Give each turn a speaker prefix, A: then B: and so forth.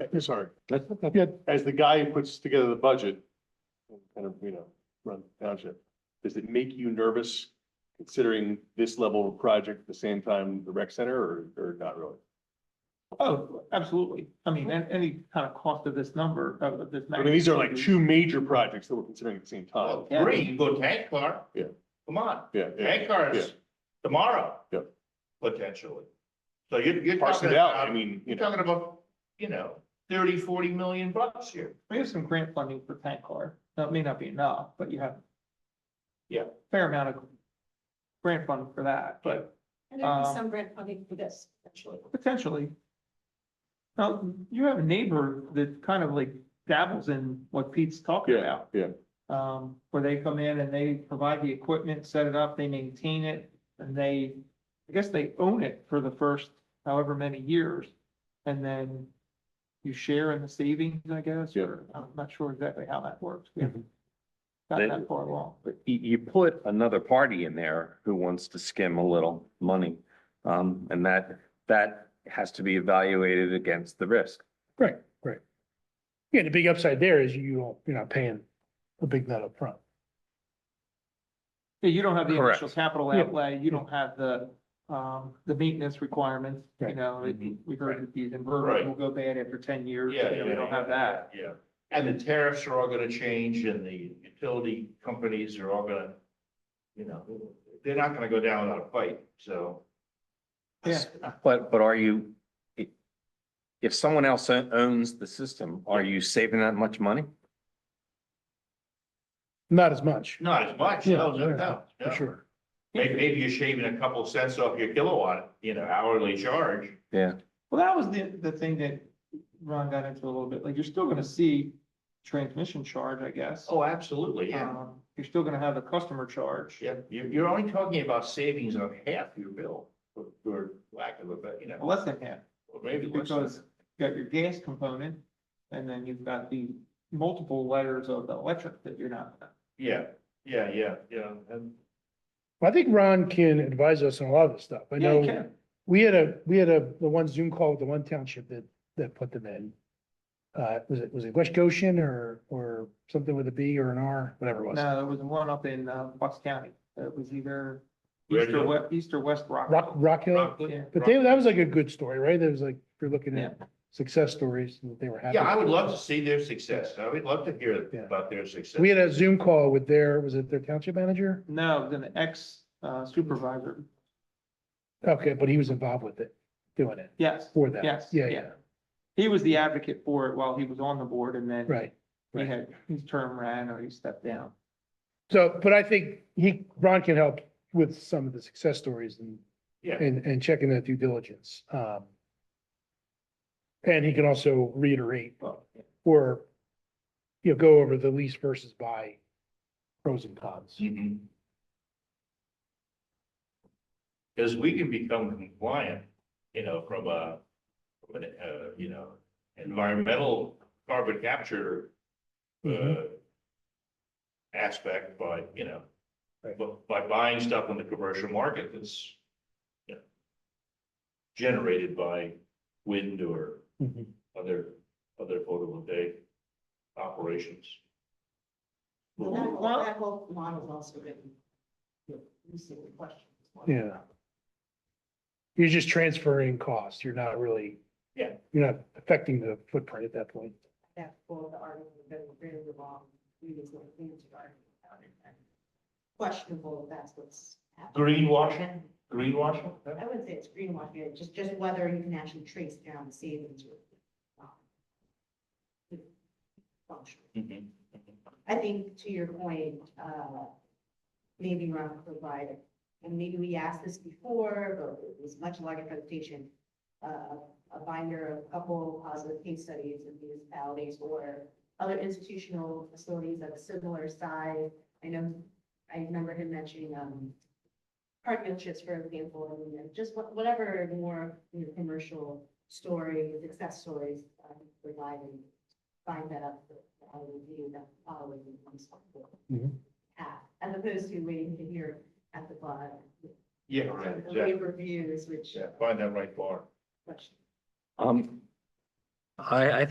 A: I'm sorry.
B: That's- that's-
A: Yeah, as the guy who puts together the budget, and kind of, you know, run the township, does it make you nervous considering this level of project at the same time the rec center or, or not really?
C: Oh, absolutely. I mean, and any kind of cost of this number, of of this.
A: I mean, these are like
C: magnitude.
A: two major projects that we're considering at the same time.
D: Well, three, you go tank car.
A: Yeah.
D: Come on,
A: Yeah, yeah,
D: tank cars tomorrow.
A: Yeah.
D: Potentially. So you're, you're
A: parse
D: talking
A: it out, I
D: about,
A: mean, you
D: you're
A: know,
D: talking about, you know, thirty, forty million bucks here.
C: We have some grant funding for tank car. Now, it may not be enough, but you have.
D: Yeah.
C: Fair amount of grant fund for that, but
E: And there'd be
C: Um,
E: some grant funding for this, actually.
C: potentially. Now, you have a neighbor that kind of like dabbles in what Pete's talking
A: yeah,
C: about.
A: yeah.
C: um, where they come in and they provide the equipment, set it up, they maintain it, and they, I guess they own it for the first however many years. And then you share in the savings, I guess, or I'm not sure exactly how that works. We
A: Mm-hmm.
C: haven't gotten that far along, but
B: You, you put another party in there who wants to skim a little money. Um, and that, that has to be evaluated against the risk.
F: Right, right. Yeah, the big upside there is you don't, you're not paying a big nut up front.
C: you don't have the
B: Correct.
C: initial capital
F: Yeah.
C: outlay, you don't have the, um, the maintenance requirements, you
F: Right.
C: know, it- we heard that these inverters
D: Mm-hmm. Right.
C: will go bad after ten years, you
D: Yeah,
C: know, we don't have that.
D: Yeah. And the tariffs are all gonna change and the utility companies are all gonna, you know, they're not gonna go down without a fight, so.
C: Yeah.
B: But, but are you, i- if someone else o- owns the system, are you saving that much money?
F: Not as much,
D: Not as much,
F: Yeah,
D: no, no,
F: yeah,
D: no,
F: for
D: no.
F: sure.
D: Maybe, maybe you're shaving a couple cents off your kilowatt, you know, hourly charge.
B: Yeah.
C: Well, that was the, the thing that Ron got into a little bit, like, you're still gonna see transmission charge, I guess.
D: Oh, absolutely, yeah.
C: Um, You're still gonna have a customer charge.
D: Yeah, you're, you're only talking about savings of half your bill, for, for lack of a, bet- you know,
C: Less than half,
D: or maybe less. than
C: because you got your gas component, and then you've got the multiple layers of the electric that you're not.
D: Yeah, yeah, yeah, yeah, and,
F: Well, I think Ron can advise us on a lot of this stuff. I
C: Yeah, you
F: know,
C: can.
F: we had a, we had a, the one Zoom call with the one township that, that put them in. Uh, was it, was it West Goshen or, or something with a B or an R, whatever it was?
C: No, there was one up in, uh, Bucks County, it was either
D: Where
C: east or
D: you-
C: west, east or west
F: Rock,
C: Rock.
F: Rock Hill?
C: Yeah.
F: But they, that was like a good story, right? That was like, if you're looking
C: Yeah,
F: at success stories, and they were happy.
D: yeah, I would love to see their success, I would love to hear
F: Yeah.
D: about their success.
F: We had a Zoom call with their, was it their township manager?
C: no, then the ex uh, supervisor,
F: Okay, but he was involved with it, doing it
C: yes,
F: for that.
C: Yes,
F: Yeah,
C: yeah.
F: yeah,
C: he was the advocate for it while he was on the board, and then
F: right.
C: he
F: right.
C: had, his term ran or he stepped down.
F: So, but I think he, Ron can help with some of the success stories and,
D: Yeah,
F: and, and checking that due diligence. Um And he can also reiterate
C: Well,
F: or, you know, go over the lease versus buy pros and cons.
D: Mm-hmm. Because we can become compliant, you know, from a, from an, uh, you know, environmental carbon capture,
F: Mm-hmm.
D: uh, aspect by, you know,
F: Right.
D: bu- by buying stuff on the commercial market that's, you know, generated by wind or
F: Mhm.
D: other, other photovoltaic operations.
E: Well, That whole,
C: Well-
E: that whole model's also been, you know, missing the question.
F: Yeah. You're just transferring costs. You're not really.
D: Yeah.
F: You're not affecting the footprint at that point.
E: That all the argument, that we're very wrong, we just want to answer argument about it. and Questionable if that's what's happening.
D: Greenwashing, greenwashing?
E: I wouldn't say it's greenwashing, it's just, just whether you can actually trace down the savings or. um, the Function.
D: Mhm.
E: I think to your point, uh, maybe Ron provided, and maybe we asked this before, but it was much larger presentation. Uh, a binder of a couple positive case studies in municipalities or other institutional facilities of a similar size. I know, I remember him mentioning, um, car dealerships, for example, and then just what- whatever more, you know, commercial stories, success stories, um, provide and find that up for our review, that following comes forward.
F: Mhm.
E: As opposed to waiting to hear at the bottom,
D: Yeah, right,
E: the
D: exactly.
E: waiver reviews, which
D: Yeah, find that right bar.
E: question.
B: Um, I, I